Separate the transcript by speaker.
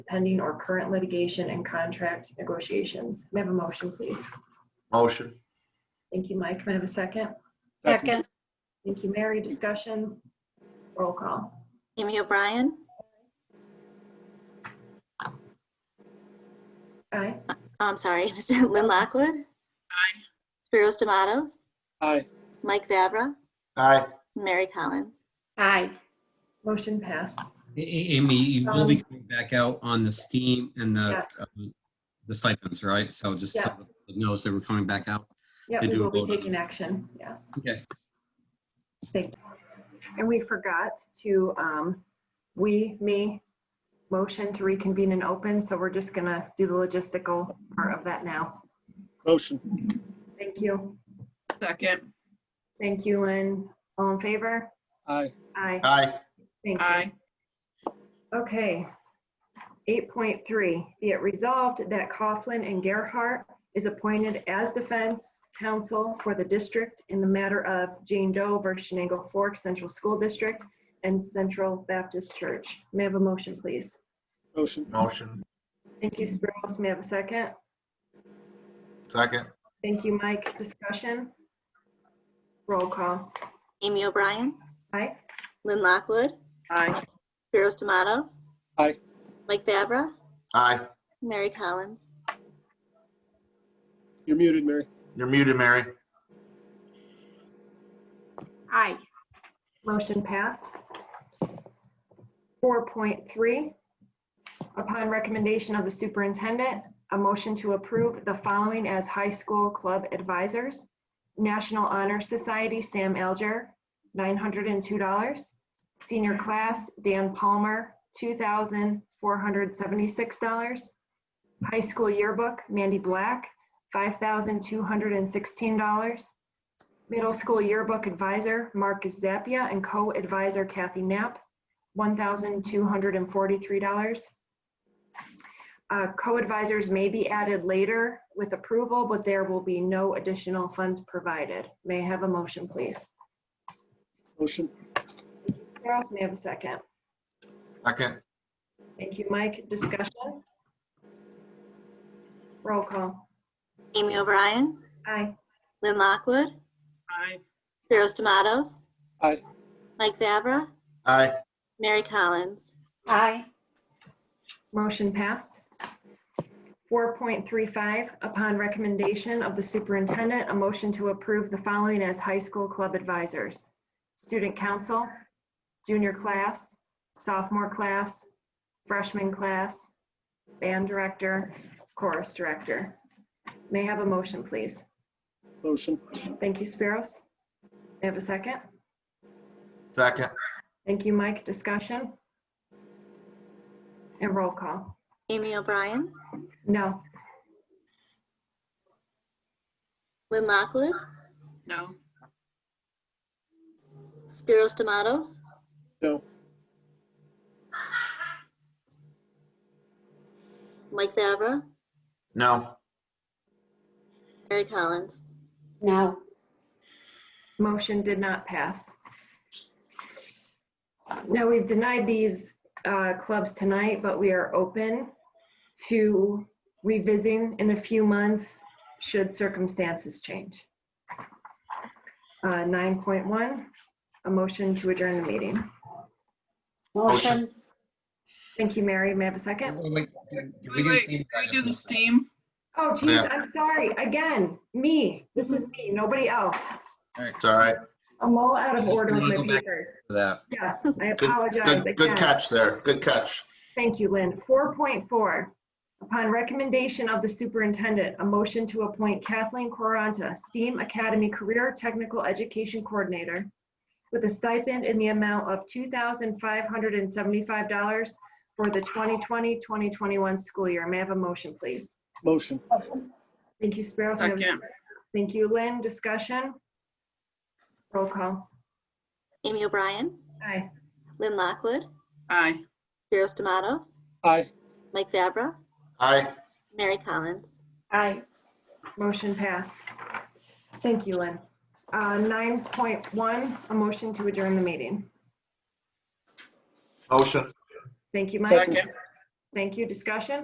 Speaker 1: pending or current litigation and contract negotiations. May I have a motion, please?
Speaker 2: Motion.
Speaker 1: Thank you, Mike. May I have a second?
Speaker 3: Second,
Speaker 1: Thank you, Mary. Discussion? Roll call.
Speaker 3: Amy O'Brien,
Speaker 1: Aye.
Speaker 3: Oh, I'm sorry, Lynn Lockwood. Aye. Spiros Tomatoes,
Speaker 4: Aye.
Speaker 3: Mike Vavra,
Speaker 2: Aye.
Speaker 3: Mary Collins.
Speaker 5: Aye.
Speaker 1: Motion passed.
Speaker 6: A- A- Amy, you will be
Speaker 1: Um,
Speaker 6: coming back out on the steam and the,
Speaker 1: Yes.
Speaker 6: um, the stipends, right? So just so
Speaker 1: Yes.
Speaker 6: the public knows that we're coming back out.
Speaker 1: Yeah,
Speaker 6: They
Speaker 1: we
Speaker 6: do a
Speaker 1: will be
Speaker 6: vote on
Speaker 1: taking action. Yes.
Speaker 6: Okay.
Speaker 1: Thank you. And we forgot to, um, we, me, motion to reconvene and open, so we're just gonna do the logistical part of that now.
Speaker 4: Motion.
Speaker 1: Thank you.
Speaker 7: Second,
Speaker 1: Thank you, Lynn. All in favor?
Speaker 4: Aye.
Speaker 1: Aye.
Speaker 2: Aye.
Speaker 1: Thank you.
Speaker 7: aye.
Speaker 1: Okay. 8.3, be it resolved that Coughlin and Gerhart is appointed as defense counsel for the district in the matter of Jane Doe versus Shenango Fork Central School District and Central Baptist Church. May I have a motion, please?
Speaker 4: Motion.
Speaker 2: Motion.
Speaker 1: Thank you, Spiros. May I have a second?
Speaker 2: Second.
Speaker 1: Thank you, Mike. Discussion? Roll call.
Speaker 3: Amy O'Brien,
Speaker 1: Mike?
Speaker 3: Lynn Lockwood,
Speaker 7: Aye.
Speaker 3: Spiros Tomatoes.
Speaker 4: Aye.
Speaker 3: Mike Vavra,
Speaker 2: Aye.
Speaker 3: Mary Collins.
Speaker 4: You're muted, Mary.
Speaker 2: You're muted, Mary.
Speaker 5: Aye.
Speaker 1: Motion passed. 4.3, upon recommendation of the superintendent, a motion to approve the following as high school club advisors. National Honor Society, Sam Alger, $902. Senior class, Dan Palmer, $2,476. High school yearbook, Mandy Black, $5,216. Middle School Yearbook Advisor Marcus Zappia and Co-Advisor Kathy Knapp, $1,243. Uh, Co-advisors may be added later with approval, but there will be no additional funds provided. May I have a motion, please?
Speaker 4: Motion.
Speaker 1: Spiros, may I have a second?
Speaker 2: Second.
Speaker 1: Thank you, Mike. Discussion? Roll call.
Speaker 3: Amy O'Brien,
Speaker 1: Aye.
Speaker 3: Lynn Lockwood,
Speaker 7: Aye.
Speaker 3: Spiros Tomatoes.
Speaker 4: Aye.
Speaker 3: Mike Vavra,
Speaker 2: Aye.
Speaker 3: Mary Collins.
Speaker 5: Aye.
Speaker 1: Motion passed. 4.35, upon recommendation of the superintendent, a motion to approve the following as high school club advisors. Student council, junior class, sophomore class, freshman class, band director, chorus director. May I have a motion, please?
Speaker 4: Motion.
Speaker 1: Thank you, Spiros. May I have a second?
Speaker 2: Second.
Speaker 1: Thank you, Mike. Discussion? And roll call.
Speaker 3: Amy O'Brien,
Speaker 1: No.
Speaker 3: Lynn Lockwood,
Speaker 7: No.
Speaker 3: Spiros Tomatoes.
Speaker 4: No.
Speaker 3: Mike Vavra,
Speaker 2: No.
Speaker 3: Mary Collins.
Speaker 5: No.
Speaker 1: Motion did not pass. Now, we've denied these uh, clubs tonight, but we are open to revisiting in a few months should circumstances change. Uh, 9.1, a motion to adjourn the meeting.
Speaker 5: Motion.
Speaker 1: Thank you, Mary. May I have a
Speaker 6: Wait,
Speaker 1: second?
Speaker 6: wait, wait, did
Speaker 7: Wait,
Speaker 6: we do the
Speaker 7: wait,
Speaker 6: steam?
Speaker 7: can we do the steam?
Speaker 1: Oh, geez,
Speaker 2: Yeah.
Speaker 1: I'm sorry. Again, me. This is me, nobody else.
Speaker 2: It's all right.
Speaker 1: I'm all out of
Speaker 6: You just
Speaker 1: order with
Speaker 6: wanna
Speaker 1: my
Speaker 6: go back-
Speaker 1: papers.
Speaker 6: For that.
Speaker 1: Yes, I
Speaker 2: Good-
Speaker 1: apologize
Speaker 2: Good, good
Speaker 1: again.
Speaker 2: catch there. Good catch.
Speaker 1: Thank you, Lynn. 4.4, upon recommendation of the superintendent, a motion to appoint Kathleen Quaranta, STEAM Academy Career Technical Education Coordinator, with a stipend in the amount of $2,575 for the 2020-2021 school year. May I have a motion, please?
Speaker 4: Motion.
Speaker 1: Thank you, Spiros. May I have a
Speaker 7: Second.
Speaker 1: Thank you, Lynn. Discussion? Roll call.
Speaker 3: Amy O'Brien,
Speaker 1: Aye.
Speaker 3: Lynn Lockwood,
Speaker 7: Aye.
Speaker 3: Spiros Tomatoes.
Speaker 4: Aye.
Speaker 3: Mike Vavra,
Speaker 2: Aye.
Speaker 3: Mary Collins.
Speaker 5: Aye.
Speaker 1: Motion passed. Thank you, Lynn. Uh, 9.1, a motion to adjourn the meeting.
Speaker 2: Motion.
Speaker 1: Thank you, Mike.
Speaker 4: Second.
Speaker 1: Thank you. Discussion?